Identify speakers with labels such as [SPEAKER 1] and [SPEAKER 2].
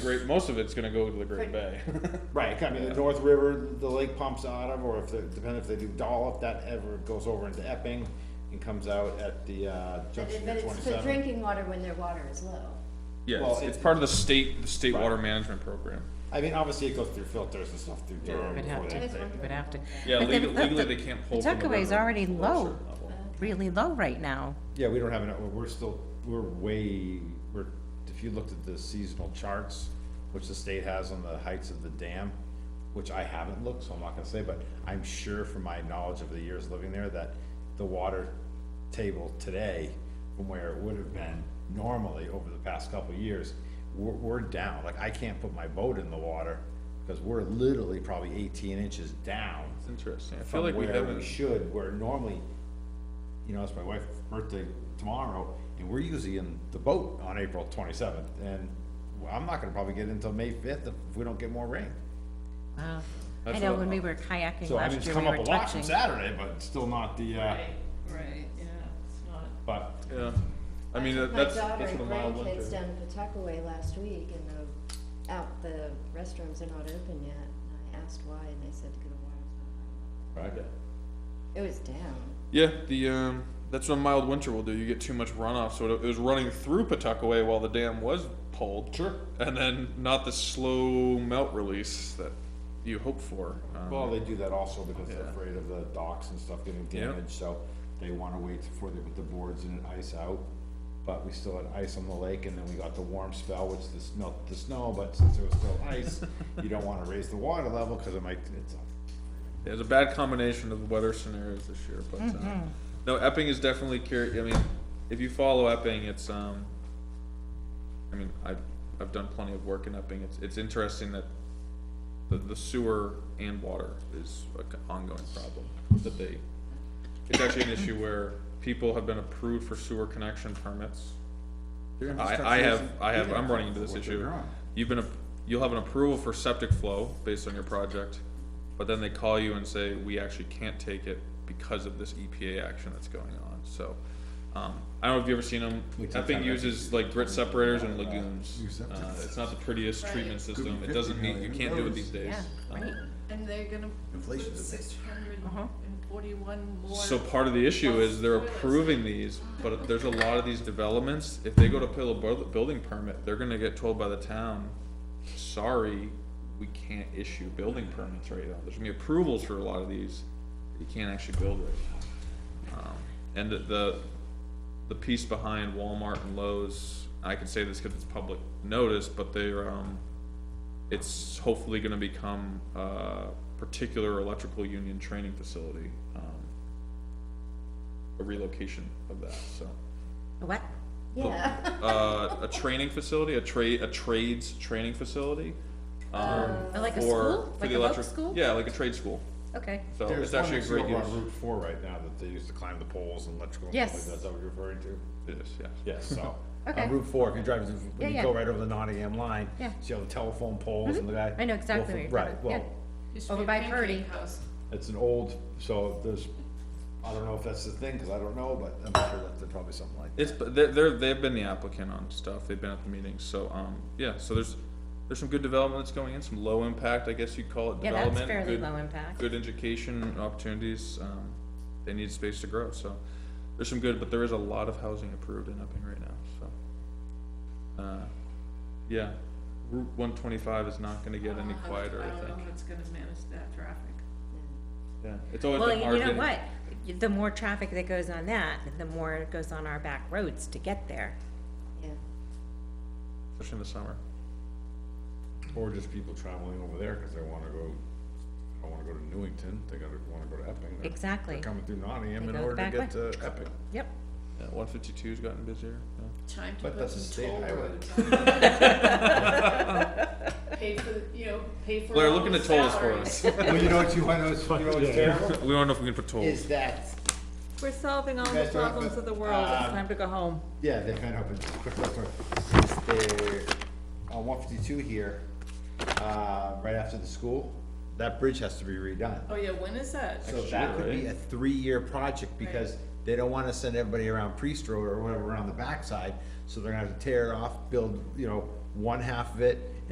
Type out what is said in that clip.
[SPEAKER 1] great, most of it's gonna go to the Great Bay.
[SPEAKER 2] Right, I mean, the North River, the lake pumps out of, or if, they- depending if they do Dollop, that ever goes over into Epping and comes out at the, uh,
[SPEAKER 3] But it-
[SPEAKER 2] junction
[SPEAKER 3] but
[SPEAKER 2] of
[SPEAKER 3] it's for
[SPEAKER 2] twenty-seven.
[SPEAKER 3] drinking water when their water is low.
[SPEAKER 1] Yeah,
[SPEAKER 2] Well,
[SPEAKER 1] it's, it's
[SPEAKER 2] it-
[SPEAKER 1] part of the state, the state
[SPEAKER 2] Right.
[SPEAKER 1] water management program.
[SPEAKER 2] I mean, obviously it goes through filters and stuff through Durham
[SPEAKER 4] Would
[SPEAKER 2] before
[SPEAKER 4] have
[SPEAKER 2] they,
[SPEAKER 4] to,
[SPEAKER 2] they-
[SPEAKER 4] would have to.
[SPEAKER 1] Yeah,
[SPEAKER 4] But the-
[SPEAKER 1] legally,
[SPEAKER 4] the-
[SPEAKER 1] legally they can't pull
[SPEAKER 4] The
[SPEAKER 1] from the river.
[SPEAKER 4] tuckaway is already
[SPEAKER 1] below a
[SPEAKER 4] low,
[SPEAKER 1] certain level.
[SPEAKER 4] really low right now.
[SPEAKER 2] yeah, we don't have enough, we're still, we're way, we're, if you looked at the seasonal charts, which the state has on the heights of the dam, which I haven't looked, so I'm not gonna say, but I'm sure from my knowledge of the years living there, that the water table today from where it would have been normally over the past couple of years, we're, we're down, like, I can't put my boat in the water, because we're literally probably eighteen inches down
[SPEAKER 1] It's interesting. I feel
[SPEAKER 2] from
[SPEAKER 1] like we
[SPEAKER 2] where we
[SPEAKER 1] haven't,
[SPEAKER 2] should, where normally, you know, it's my wife's birthday tomorrow, and we're usually in the boat on April twenty-seventh, and I'm not gonna probably get in until May fifth if we don't get more rain.
[SPEAKER 4] Wow. I
[SPEAKER 1] That's
[SPEAKER 4] know
[SPEAKER 1] a-
[SPEAKER 4] when we were kayaking
[SPEAKER 2] So, I mean,
[SPEAKER 4] last
[SPEAKER 2] it's
[SPEAKER 4] year,
[SPEAKER 2] come
[SPEAKER 4] we
[SPEAKER 2] up
[SPEAKER 4] were
[SPEAKER 2] a lot from
[SPEAKER 4] touching.
[SPEAKER 2] Saturday, but it's still not the, uh,
[SPEAKER 5] Right, right, yeah, it's not.
[SPEAKER 2] but,
[SPEAKER 1] yeah, I mean,
[SPEAKER 3] took
[SPEAKER 1] that's, that's what a
[SPEAKER 3] My
[SPEAKER 1] mild
[SPEAKER 3] daughter and grandkids
[SPEAKER 1] winter.
[SPEAKER 3] down Pawtuckaway last week and the, out, the restrooms are not open yet. And I asked why and they said to go to water.
[SPEAKER 2] right,
[SPEAKER 3] It was down.
[SPEAKER 1] Yeah, the, um, that's what a mild winter will do. You get too much runoff, so it it was running through Pawtuckaway while the dam was pulled.
[SPEAKER 2] Sure.
[SPEAKER 1] And then not the slow melt release that you hope for. Um,
[SPEAKER 2] well, they do that also because they're
[SPEAKER 1] Yeah.
[SPEAKER 2] afraid of the docks and stuff getting
[SPEAKER 1] Yeah.
[SPEAKER 2] damaged, so they wanna wait before they put the boards in and ice out. But we still had ice on the lake, and then we got the warm spell, which this melt the snow, but since there was still ice, you don't wanna raise the water level, cause it might, it's,
[SPEAKER 1] It was a bad combination of weather scenarios this year, but uh, no, Epping is definitely curious. I mean, if you follow Epping, it's um, I mean, I've I've done plenty of work in Epping. It's it's interesting that the, the sewer and water is an ongoing problem that they. It's actually an issue where people have been approved for sewer connection permits. I, I have, I have, I'm running into this issue. You've been, a- you'll have an approval for septic flow based on your project, but then they call you and say, we actually can't take it because of this EPA action that's going on, so. Um, I don't know if you've ever seen them,
[SPEAKER 2] We took
[SPEAKER 1] Epping
[SPEAKER 2] that-
[SPEAKER 1] uses like grit separators and lagoons.
[SPEAKER 6] Use septic.
[SPEAKER 1] Uh, it's not the prettiest treatment
[SPEAKER 6] be
[SPEAKER 1] system, it
[SPEAKER 6] 50
[SPEAKER 1] doesn't meet, you
[SPEAKER 6] million.
[SPEAKER 1] can't do it these days.
[SPEAKER 4] Yeah,
[SPEAKER 1] Um,
[SPEAKER 4] right.
[SPEAKER 5] And they're gonna put
[SPEAKER 6] Inflation's a bitch.
[SPEAKER 5] six hundred and forty-one more.
[SPEAKER 1] So part of the issue is they're
[SPEAKER 5] Toilets.
[SPEAKER 1] approving these, but there's a lot of these developments, if they go to pull a bu- building permit, they're gonna get told by the town, sorry, we can't issue building permits right now, there's gonna be approvals for a lot of these, you can't actually build right now. Um, And the- the, the piece behind Walmart and Lowe's, I can say this cause it's public notice, but they're, um, it's hopefully gonna become a particular electrical union training facility, um, a relocation of that, so.
[SPEAKER 4] What?
[SPEAKER 3] Yeah.
[SPEAKER 1] Uh, a training facility, a trade, a trades training facility. Um,
[SPEAKER 4] Oh, Like a
[SPEAKER 1] for-
[SPEAKER 4] school?
[SPEAKER 1] for
[SPEAKER 4] Like
[SPEAKER 1] the
[SPEAKER 4] a boat
[SPEAKER 1] electric-
[SPEAKER 4] school?
[SPEAKER 1] Yeah, like a trade school,
[SPEAKER 4] Okay.
[SPEAKER 1] so
[SPEAKER 2] There's
[SPEAKER 1] it's
[SPEAKER 2] one
[SPEAKER 1] actually a
[SPEAKER 2] that's
[SPEAKER 1] great
[SPEAKER 2] over
[SPEAKER 1] use.
[SPEAKER 2] on Route Four right now that they use to climb the poles and electrical and
[SPEAKER 4] Yes.
[SPEAKER 2] stuff like that, is that what you're referring to?
[SPEAKER 1] It is, yes.
[SPEAKER 2] Yes, so,
[SPEAKER 4] Okay.
[SPEAKER 2] on Route Four, if you're driving, through-
[SPEAKER 4] Yeah,
[SPEAKER 2] when you
[SPEAKER 4] yeah.
[SPEAKER 2] go right over the Nottingham line,
[SPEAKER 4] Yeah. Mm-hmm.
[SPEAKER 2] see all the telephone poles and the guy.
[SPEAKER 4] I know exactly
[SPEAKER 2] Well,
[SPEAKER 4] where you're
[SPEAKER 2] Right,
[SPEAKER 4] talking-
[SPEAKER 2] well,
[SPEAKER 4] yeah.
[SPEAKER 5] Used to
[SPEAKER 4] Over
[SPEAKER 5] be a
[SPEAKER 4] by
[SPEAKER 5] pancake
[SPEAKER 4] Purdy.
[SPEAKER 5] house.
[SPEAKER 2] It's an old, so there's, I don't know if that's the thing, because I don't know, but I'm sure that there's probably something like that.
[SPEAKER 1] It's, they're, they're, they've been the applicant on stuff, they've been at the meetings, so, um, yeah, so there's, there's some good development that's going in, some low impact, I guess you'd call it
[SPEAKER 4] Yeah, that's
[SPEAKER 1] development.
[SPEAKER 4] fairly
[SPEAKER 1] good-
[SPEAKER 4] low impact.
[SPEAKER 1] good education opportunities, um, they need space to grow, so. There's some good, but there is a lot of housing approved in Epping right now, so. Uh, yeah, Route one twenty-five is not gonna get any
[SPEAKER 5] Oh, I don't-
[SPEAKER 1] quieter, I
[SPEAKER 5] Uh, I don't know
[SPEAKER 1] think,
[SPEAKER 5] if it's gonna manage that traffic.
[SPEAKER 1] yeah, it's always
[SPEAKER 4] Well,
[SPEAKER 1] been hard
[SPEAKER 4] you know
[SPEAKER 1] getting.
[SPEAKER 4] what? The more traffic that goes on that, the more it goes on our back roads to get there.
[SPEAKER 3] Yeah.
[SPEAKER 1] Especially in the summer,
[SPEAKER 2] Or just people traveling over there, because they want to go, don't want to go to Newington, they gotta, want to go to Epping. They're-
[SPEAKER 4] Exactly.
[SPEAKER 2] They're coming through Nottingham
[SPEAKER 4] They
[SPEAKER 2] in
[SPEAKER 4] go the
[SPEAKER 2] order to
[SPEAKER 4] back
[SPEAKER 2] get to Epping.
[SPEAKER 4] Yep.
[SPEAKER 1] yeah, one fifty-two's gotten busier, yeah.
[SPEAKER 5] Time to
[SPEAKER 2] But
[SPEAKER 5] put
[SPEAKER 2] that's a
[SPEAKER 5] some
[SPEAKER 2] state
[SPEAKER 5] toll
[SPEAKER 2] highway.
[SPEAKER 5] roads on. Pay for, the- you know, pay for.
[SPEAKER 1] Blair,
[SPEAKER 5] all
[SPEAKER 1] look into
[SPEAKER 5] the
[SPEAKER 1] tolls for
[SPEAKER 5] salaries.
[SPEAKER 1] us,
[SPEAKER 2] Well, you know what, you want to, you know what's terrible?
[SPEAKER 1] we don't know if we can put tolls,
[SPEAKER 2] Is that,
[SPEAKER 7] We're solving all
[SPEAKER 2] You
[SPEAKER 7] the
[SPEAKER 2] guys don't have
[SPEAKER 7] problems
[SPEAKER 2] to-
[SPEAKER 7] of the world, it's
[SPEAKER 1] Ah.
[SPEAKER 2] um,
[SPEAKER 7] time to go home.
[SPEAKER 2] yeah, they kind of opened, quick, quick, quick. Since they're on one fifty-two here, uh, right after the school, that bridge has to be redone.
[SPEAKER 5] Oh, yeah, when is that?
[SPEAKER 2] So that could be
[SPEAKER 1] right?
[SPEAKER 2] a three-year project because they don't wanna send everybody around Priest Road or whatever around the backside. So they're gonna have to tear off, build, you know, one half of it